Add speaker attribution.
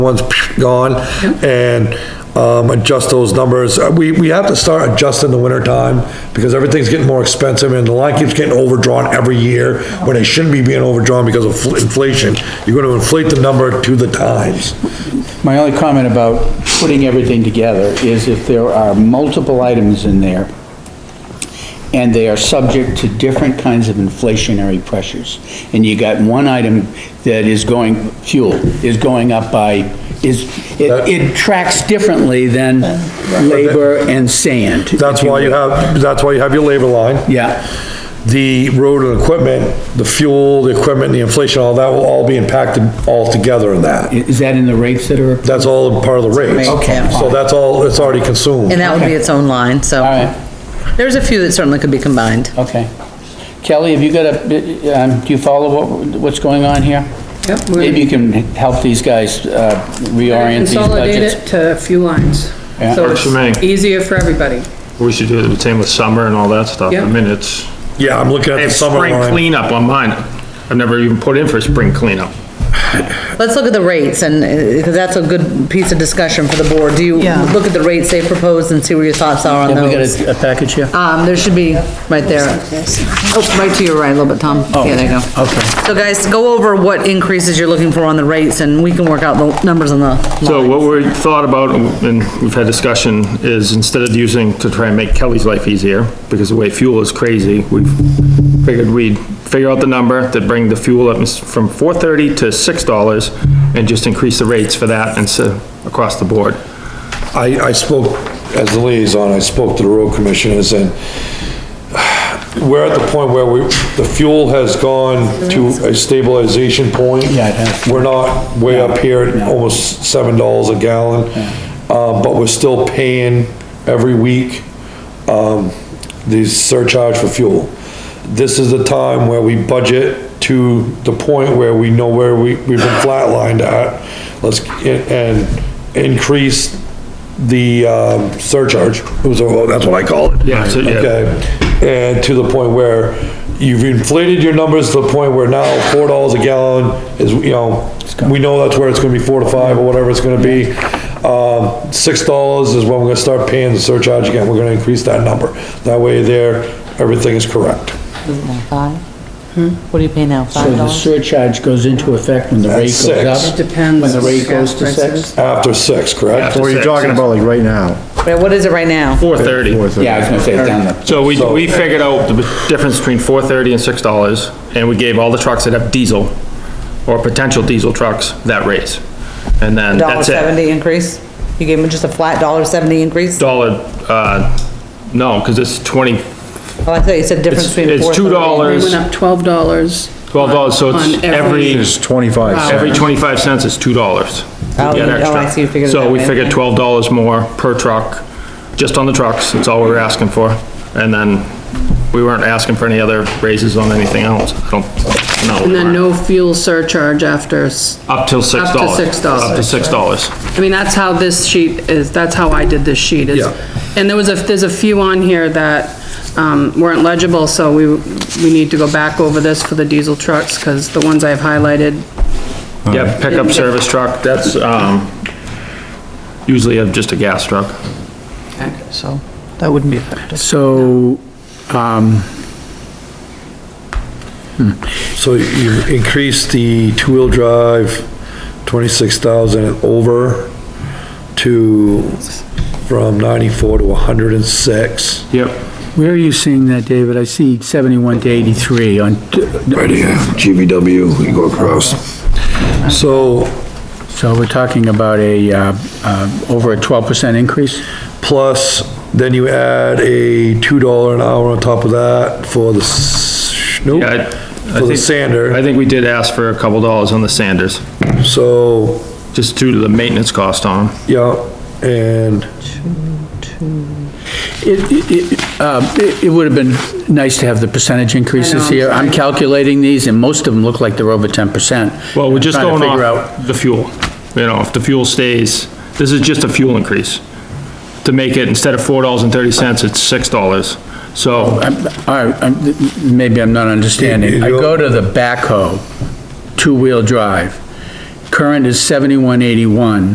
Speaker 1: one's gone, and um, adjust those numbers. Uh, We, we have to start adjusting the winter time, because everything's getting more expensive, and the line keeps getting overdrawn every year, when it shouldn't be being overdrawn because of fl- inflation. You're gonna inflate the number to the times.
Speaker 2: My only comment about putting everything together is if there are multiple items in there and they are subject to different kinds of inflationary pressures, and you got one item that is going, fuel, is going up by, is, it, it tracks differently than labor and sand.
Speaker 1: That's why you have, that's why you have your labor line.
Speaker 2: Yeah,
Speaker 1: the road and equipment, the fuel, the equipment, the inflation, all that will all be impacted all together in
Speaker 2: I-
Speaker 1: that.
Speaker 2: is that in the rates that are?
Speaker 1: That's all part of the rates.
Speaker 3: Okay.
Speaker 1: So that's all, it's already consumed.
Speaker 3: And that would be its own line, so.
Speaker 2: All right.
Speaker 3: There's a few that certainly could be combined.
Speaker 2: Okay. Kelly, have you got a, um, do you follow what, what's going on here?
Speaker 4: Yep, we're-
Speaker 2: Maybe you can help these guys, uh, reorient these
Speaker 4: Consolidate
Speaker 2: budgets.
Speaker 4: it to a few lines.
Speaker 2: Yeah.
Speaker 4: So
Speaker 5: Works for me.
Speaker 4: it's easier for everybody.
Speaker 5: We should do the same with summer and all that stuff.
Speaker 4: Yeah.
Speaker 5: I mean, it's,
Speaker 1: Yeah, I'm looking at
Speaker 5: I
Speaker 1: the
Speaker 5: have
Speaker 1: summer
Speaker 5: spring
Speaker 1: line.
Speaker 5: cleanup on mine. I've never even put in for spring cleanup.
Speaker 3: Let's look at the rates and, uh, because that's a good piece of discussion for the board. Do you look at the rates they proposed and see where your thoughts are on
Speaker 2: Have we
Speaker 3: those?
Speaker 2: got a- a package here?
Speaker 3: Um, there should be, right there. Oh, right to your right a little bit, Tom. Yeah, there you go.
Speaker 2: Okay.
Speaker 3: So guys, go over what increases you're looking for on the rates and we can work out the numbers on the.
Speaker 5: So what we thought about, and we've had discussion, is instead of using, to try and make Kelly's life easier, because the way fuel is crazy, we figured we'd figure out the number that bring the fuel up from four thirty to six dollars and just increase the rates for that and so, across the board.
Speaker 1: I, I spoke, as the liaison, I spoke to the road commissioners and we're at the point where we, the fuel has gone to a stabilization point.
Speaker 2: Yeah, it has.
Speaker 1: We're not way up here at almost seven dollars a gallon, uh, but we're still paying every week, um, the surcharge for fuel. This is the time where we budget to the point where we know where we, we've been flatlined at. Let's, and increase the, um, surcharge, It was- that's what I call it.
Speaker 5: Yeah, so, yeah.
Speaker 1: Okay, and Uh, to the point where you've inflated your numbers to the point where now four dollars a gallon is, you know, we know that's where it's gonna be four to five or whatever it's gonna be. Um, six dollars is when we're gonna start paying the surcharge again, we're gonna increase that number. That way there, everything is correct.
Speaker 3: Five? What do you pay now,
Speaker 2: So the surcharge goes into effect when the rate
Speaker 1: That's
Speaker 2: goes up?
Speaker 1: six.
Speaker 4: Depends
Speaker 2: When the rate goes to
Speaker 4: gas
Speaker 2: six?
Speaker 4: prices.
Speaker 1: After six, correct?
Speaker 5: After
Speaker 6: What are you
Speaker 5: six.
Speaker 6: talking about, like, right now?
Speaker 3: What is it right now?
Speaker 5: Four thirty.
Speaker 6: Or is it-
Speaker 2: Yeah, I was gonna say it's down the,
Speaker 5: So we, we figured out the difference between four thirty and six dollars, and we gave all the trucks that have diesel or potential diesel trucks that raise. And then
Speaker 3: Dollar
Speaker 5: that's it.
Speaker 3: seventy increase? You gave them just a flat dollar seventy increase?
Speaker 5: Dollar, uh, no, because it's twenty,
Speaker 3: Oh, I thought you said difference
Speaker 5: It's-
Speaker 3: between.
Speaker 5: it's
Speaker 3: 430.
Speaker 4: They
Speaker 5: $2.
Speaker 4: went up twelve dollars.
Speaker 5: twelve dollars, so it's
Speaker 4: On every-
Speaker 5: every,
Speaker 6: It's twenty-five
Speaker 5: every
Speaker 6: cents.
Speaker 5: twenty-five cents is two dollars.
Speaker 3: Oh, you- oh, I see, you figured it
Speaker 5: So
Speaker 3: that
Speaker 5: we
Speaker 3: way,
Speaker 5: figured
Speaker 3: okay.
Speaker 5: twelve dollars more per truck, just on the trucks, that's all we were asking for. And then we weren't asking for any other raises on anything else, I don't, no.
Speaker 4: And
Speaker 5: we
Speaker 4: then
Speaker 5: weren't.
Speaker 4: no fuel surcharge after, s-
Speaker 5: Up till six
Speaker 4: Up to
Speaker 5: dollars.
Speaker 4: $6.
Speaker 5: Up to six dollars.
Speaker 4: I mean, that's how this sheet is, that's how I did this sheet is.
Speaker 1: Yeah.
Speaker 4: And there was a, there's a few on here that, um, weren't legible, so we, we need to go back over this for the diesel trucks, because the ones I've highlighted,
Speaker 5: Yeah, pickup service truck, that's, um, usually a- just a gas truck.
Speaker 7: so that wouldn't be effective.
Speaker 2: so, um,
Speaker 1: So you've increased the two-wheel drive, twenty-six thousand and over to, from ninety-four to hundred and six.
Speaker 5: Yep.
Speaker 2: where are you seeing that, David? I see 71 to 83 on,
Speaker 1: Right here, GVW, you go across. So,
Speaker 2: so we're talking about a, uh, uh, over a 12% increase?
Speaker 1: plus, then you add a two dollar an hour on top of that for the, s- nope,
Speaker 5: Yeah, I- I
Speaker 1: for the
Speaker 5: think- I
Speaker 1: sander,
Speaker 5: think we did ask for a couple dollars on the Sanders,
Speaker 1: so,
Speaker 5: just due to the maintenance cost on 'em.
Speaker 1: yeah, and,
Speaker 2: It, it- it, um, it, it would have been nice to have the percentage increases here. I'm calculating these, and most of them look like they're over 10%.
Speaker 5: Well, we're just
Speaker 2: Trying to
Speaker 5: going
Speaker 2: figure out-
Speaker 5: off the fuel. You know, if the fuel stays, this is just a fuel increase. To make it, instead of four dollars and thirty cents, it's six dollars. So,
Speaker 2: I'm- All right, I'm- maybe I'm not understanding. I go to the backhoe, two-wheel drive, current is seventy-one eighty-one.